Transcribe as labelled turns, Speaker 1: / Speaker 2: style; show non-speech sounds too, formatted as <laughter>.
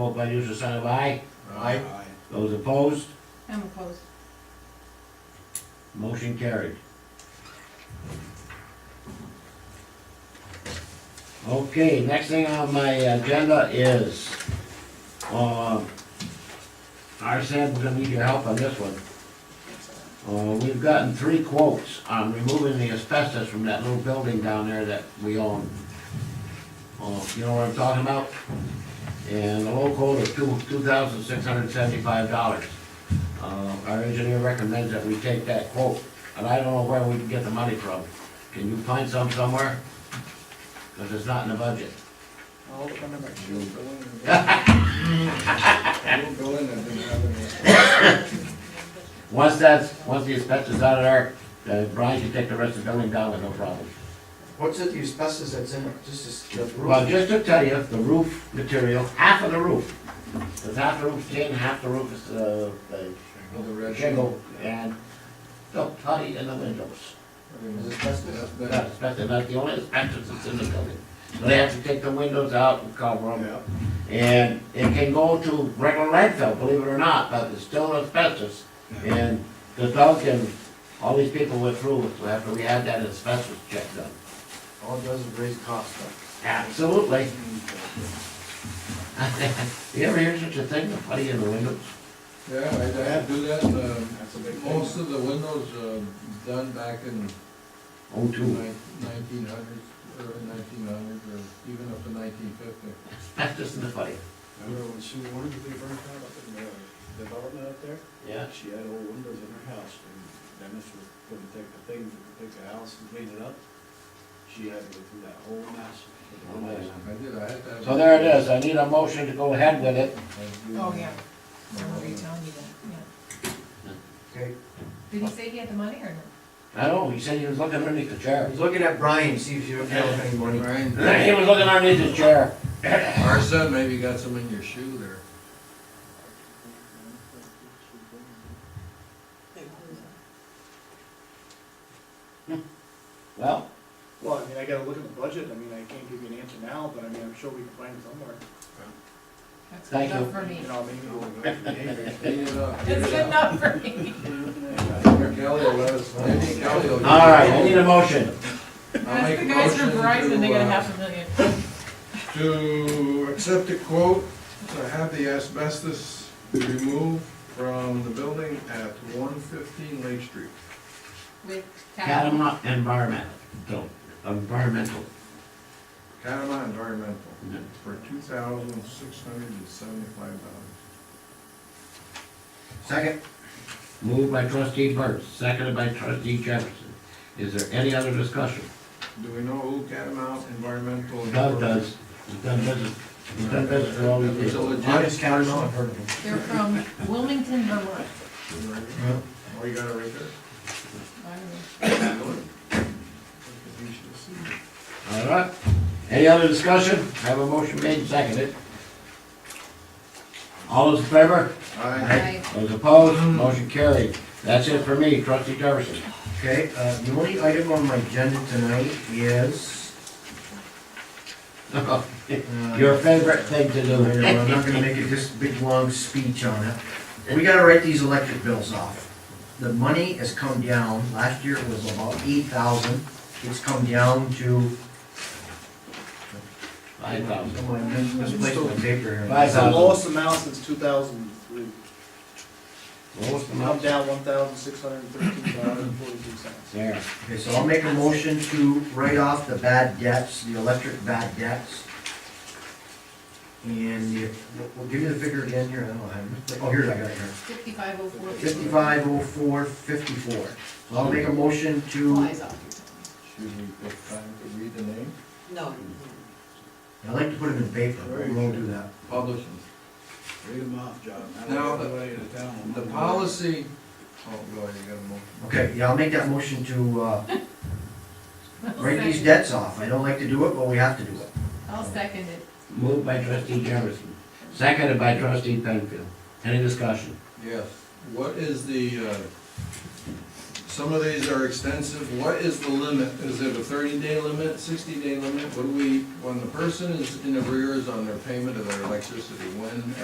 Speaker 1: Vote by usual sign of aye. Aye. Those opposed,
Speaker 2: I'm opposed.
Speaker 1: motion carried. Okay, next thing on my agenda is, um, Arson, we're gonna need your help on this one. Uh, we've gotten three quotes on removing the asbestos from that little building down there that we own. Uh, you know what I'm talking about? And the low quote is two, two thousand six hundred seventy-five dollars. Uh, our engineer recommends that we take that quote, and I don't know where we can get the money from. Can you find some somewhere? Cause it's not in the budget.
Speaker 3: I'll look under my shoe, go in and. I'll go in and do another
Speaker 1: Once that's, once the inspector's out of there, uh, Brian can take the rest of the building down with no problem.
Speaker 4: What's it, the asbestos that's in it, just is the
Speaker 1: Well,
Speaker 4: roof?
Speaker 1: just to tell you, the roof material, half of the roof, because half the roof's tin, half the roof is, uh,
Speaker 3: one. The
Speaker 1: uh,
Speaker 3: red
Speaker 1: shingle, and the putty in the windows.
Speaker 4: Is it asbestos?
Speaker 3: That's
Speaker 1: That's,
Speaker 3: better.
Speaker 1: that's about the only entrance that's in the building. So they have to take the windows out and cover them.
Speaker 3: Yeah.
Speaker 1: And it can go to regular landfill, believe it or not, but it's still asbestos. And the dog and all these people went through it after we had that asbestos check done.
Speaker 4: All it does is raise costs,
Speaker 1: Absolutely. <laughs> You ever hear such a thing, the putty in the windows?
Speaker 3: Yeah, I, I had to do that, uh,
Speaker 4: that's a big
Speaker 3: most
Speaker 4: thing.
Speaker 3: of the windows, uh, done back in
Speaker 1: Oh, too.
Speaker 3: nineteen hundreds, or nineteen hundreds, or even up to nineteen fifty.
Speaker 1: Asbestos in the putty.
Speaker 5: Remember when Sue Warren was being burnt out up in the development up there?
Speaker 1: Yeah.
Speaker 5: She had old windows in her house, and Dennis was gonna take the thing, take the house and clean it up. She had to go through that whole mess.
Speaker 1: Oh, man.
Speaker 3: I did, I had to. have-
Speaker 1: So there it is, I need a motion to go ahead with it.
Speaker 2: Oh, yeah. I remember you telling me that, yeah.
Speaker 4: Okay,
Speaker 2: Did he say he had the money or no?
Speaker 1: I know, he said he was looking underneath the chair.
Speaker 4: he's looking at Brian, see if you have any money.
Speaker 3: Brian,
Speaker 1: <laughs> He was looking underneath his chair.
Speaker 3: our son maybe got some in your shoe there.
Speaker 1: Well,
Speaker 5: Well, I mean, I gotta look at the budget, I mean, I can't give you an answer now, but I mean, I'm sure we can find it somewhere.
Speaker 2: That's good
Speaker 1: Thank you.
Speaker 2: enough for me.
Speaker 5: You know, maybe we'll go from there.
Speaker 3: Clean it up.
Speaker 2: That's good enough for
Speaker 3: <laughs>
Speaker 2: me.
Speaker 3: Maybe Kelly will let us, maybe Kelly will.
Speaker 1: all right, I need a motion.
Speaker 3: I'll
Speaker 2: That's
Speaker 3: make a
Speaker 2: the guys from
Speaker 3: motion to,
Speaker 2: Verizon, they got a
Speaker 3: uh,
Speaker 2: half a million.
Speaker 3: to accept a quote to have the asbestos removed from the building at one fifteen Lake Street.
Speaker 2: With tax.
Speaker 1: Catamount environmental, environmental.
Speaker 3: Catamount Environmental for two thousand six hundred and seventy-five dollars.
Speaker 4: Second,
Speaker 1: Moved by trustee Burns, seconded by trustee Jefferson. Is there any other discussion?
Speaker 3: Do we know who Catamount Environmental? is?
Speaker 1: Doug does, he's done business, he's done business for all
Speaker 3: It
Speaker 1: these
Speaker 3: was a
Speaker 1: years.
Speaker 3: legit.
Speaker 4: honest counters on, I've heard of them.
Speaker 2: They're from Wilmington, Vermont.
Speaker 3: Oh, you got it right
Speaker 2: I don't know.
Speaker 3: there? You should see.
Speaker 1: All right, any other discussion? Have a motion made and seconded. All those in favor?
Speaker 3: Aye.
Speaker 2: I-
Speaker 1: Those opposed?
Speaker 4: Mm-hmm.
Speaker 1: Motion carried. That's it for me, trustee Jefferson. <laughs>
Speaker 4: Okay, uh, the only item on my agenda tonight is, uh,
Speaker 1: Your favorite thing to
Speaker 4: Well,
Speaker 1: do.
Speaker 4: I'm
Speaker 1: <laughs>
Speaker 4: not gonna make it this big, long speech on it. We gotta write these electric bills off. The money has come down, last year it was about eight thousand, it's come down to.
Speaker 1: Five thousand.
Speaker 4: Come on, I misplaced my paper here.
Speaker 1: Five
Speaker 5: That's the
Speaker 1: thousand.
Speaker 5: lowest amount since two thousand and three.
Speaker 1: Lowest
Speaker 5: I'm
Speaker 1: amount
Speaker 5: down one thousand six hundred and thirteen dollars and forty-two cents.
Speaker 1: there.
Speaker 4: Okay, so I'll make a motion to write off the bad debts, the electric bad debts. And the- we'll- we'll give you the figure again here, I don't have it. Oh, here, I got it here.
Speaker 2: 5504.
Speaker 4: Fifty-five oh four fifty-four. So I'll make a motion to.
Speaker 2: Flies off your tongue.
Speaker 3: Should we take time to read the name?
Speaker 6: No.
Speaker 4: I like to put them in paper, but we won't do that.
Speaker 3: Publishing.
Speaker 5: Read them off, John. I don't
Speaker 3: Now,
Speaker 5: know
Speaker 3: the-
Speaker 5: anybody in town.
Speaker 3: The policy, oh, go ahead, you got a motion.
Speaker 4: Okay, yeah, I'll make that motion to, uh, write these
Speaker 2: Second.
Speaker 4: debts off. I don't like to do it, but we have to do it.
Speaker 2: I'll second it.
Speaker 1: Moved by trustee Jefferson, seconded by trustee Penfield. Any discussion?
Speaker 3: Yes, what is the, uh, Some of these are extensive. What is the limit? Is it a thirty-day limit, sixty-day limit? What do we, when the person is in arrears on their payment of their electricity, when